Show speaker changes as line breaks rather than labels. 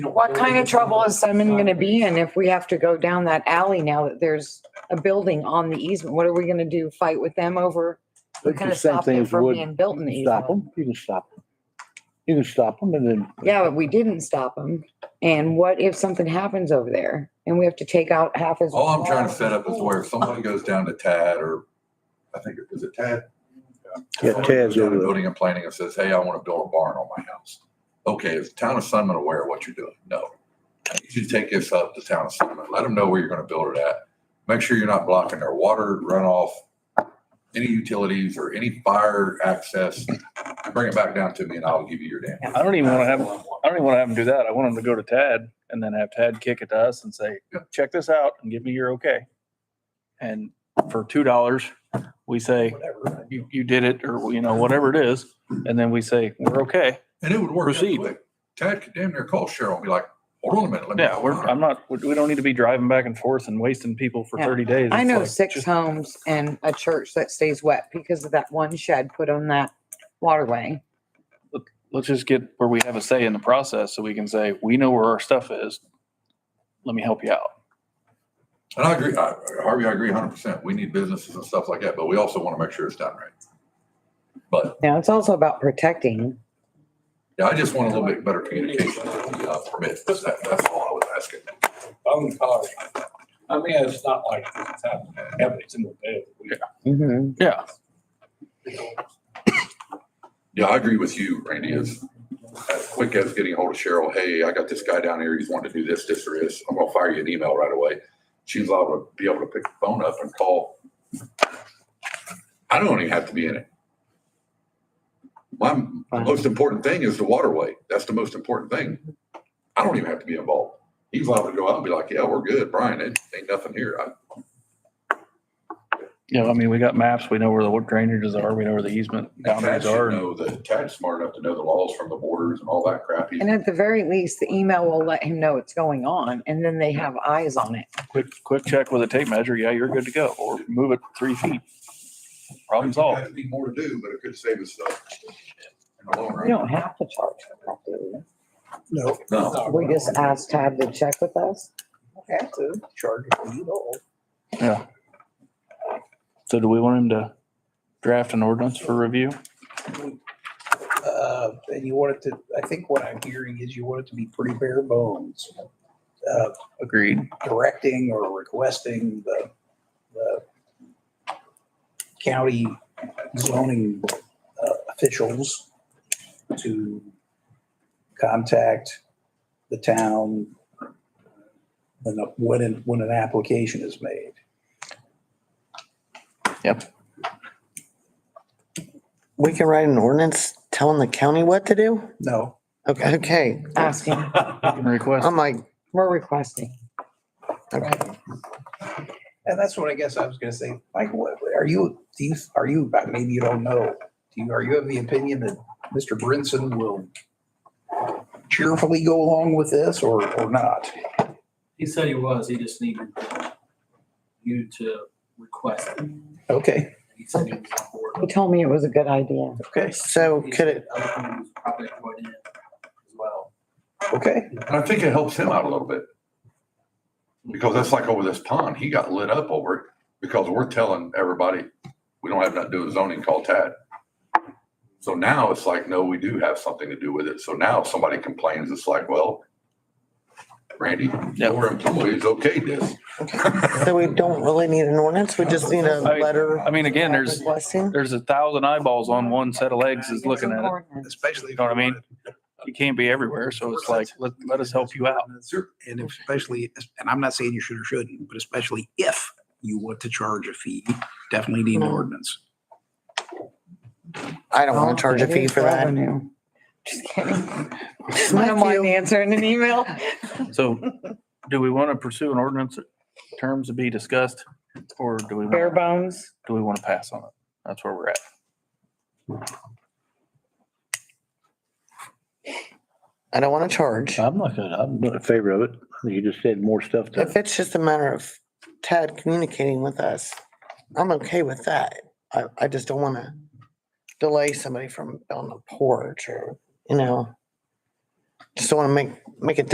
What kind of trouble is Simon gonna be in if we have to go down that alley now that there's a building on the easement? What are we gonna do? Fight with them over? We
It's
kind
the
of
same
stopped
thing
it
as
from
wood.
being built in the
Stop
easement.
them, you can stop them. You can stop them and then.
Yeah, but we didn't stop them. And what if something happens over there and we have to take out half as?
All I'm trying to set up is where if somebody goes down to Tad or, I think, it was it Tad?
Yeah, Tad's
Somebody goes down to
over there.
Building and planning and says, hey, I want to build a barn on my house. Okay, is the town of Sunman aware of what you're doing? No. You should take this up to town of Sunman. Let them know where you're going to build it at. Make sure you're not blocking their water runoff, any utilities or any fire access. Bring it back down to me and I'll give you your damn.
I don't even want to have, I don't even want to have them do that. I want them to go to Tad and then have Tad kick it to us and say,
Yeah.
check this out and give me your okay. And for two dollars, we say, you, you did it or, you know, whatever it is. And then we say, we're okay.
And it would work. out
Proceed.
quick. Tad could damn near call Cheryl and be like, hold on a minute. let me-
Yeah, we're, I'm not, we we don't need to be driving back and forth and wasting people for
Yeah.
thirty days.
I
It's
know
like,
six
just-
homes and a church that stays wet because of that one shed put on that waterway.
Let's just get where we have a say in the process so we can say, we know where our stuff is. Let me help you out.
And I agree, I- Harvey, I agree hundred percent. We need businesses and stuff like that, but we also want to make sure it's done right. But
Now, it's also about protecting.
yeah, I just want a little bit better communication with the uh, permits. That's, that's all I was asking.
phone calls. I mean, it's not like it's happening every single day.
Mhm.
Yeah,
Yeah, I agree with you, Randy. It's as quick as getting hold of Cheryl. Hey, I got this guy down here. He's wanting to do this, this or this. I'm gonna fire you an email right away. She's allowed to be able to pick the phone up and call. I don't even have to be in it. My most important thing is the waterway. That's the most important thing. I don't even have to be involved. He's allowed to go out and be like, yeah, we're good, Brian. It ain't nothing here. I,
yeah, I mean, we got maps. We know where the drainages are. We know where the easement
Tad
boundaries
should
are. and-
know that, Tad's smart enough to know the laws from the borders and all that crap. He's-
And at the very least, the email will let him know it's going on and then they have eyes on it.
Quick, quick check with a tape measure. Yeah, you're good to go. Or move it three feet. Problem solved.
That'd be more to do, but it could save us stuff. in the long
We
run.
don't have to charge for that, do
No,
No,
we? We just asked Tab to check with us.
have to charge it for you all.
Yeah. So do we want him to draft an ordinance for review?
Uh, And you want it to, I think what I'm hearing is you want it to be pretty bare bones. Uh,
Agreed.
Directing or requesting the, the county zoning uh, officials to contact the town when, a- when, an- when an application is made.
We can write an ordinance telling the county what to do?
No,
Okay, okay.
Asking,
Request.
I'm like,
we're requesting.
And that's what I guess I was gonna say, Mike, what, are you, do you, are you, maybe you don't know, do you, are you of the opinion that Mr. Brinson will cheerfully go along with this or, or not?
He said he was, he just needed you to request it. And
Okay,
He said he was on board.
He told me it was a good idea.
okay,
so
He
could
said
it,
other companies Probably joined in as well.
okay.
and I think it helps him out a little bit. Because that's like over this pond, he got lit up over it because we're telling everybody, we don't have nothing to do with zoning, call Tad. So now it's like, no, we do have something to do with it. So now if somebody complains, it's like, well, Randy,
Yeah.
your employees okayed this.
so we don't really need an ordinance? We just need a
I-
letter
I mean, again, there's,
requesting?
there's a thousand eyeballs on one set of legs is looking at it.
Especially.
You know what I mean? You can't be everywhere. So it's like, let, let us help you out.
And especially, and I'm not saying you should or shouldn't, but especially if you want to charge a fee, definitely need an ordinance.
I don't want to charge a fee for that.
Just kidding. I don't
Smack
mind
you.
answering an email.
So do we want to pursue an ordinance terms to be discussed? Or do we,
Bare
wanna-
bones.
do we want to pass on it? That's where we're at.
I don't want to charge.
I'm not gonna, I'm not in favor of it. I think You just said more stuff
If
to,
it's just a matter of Tad communicating with us, I'm okay with that. I, I just don't want to delay somebody from building a porch or, you know, just don't want to make, make it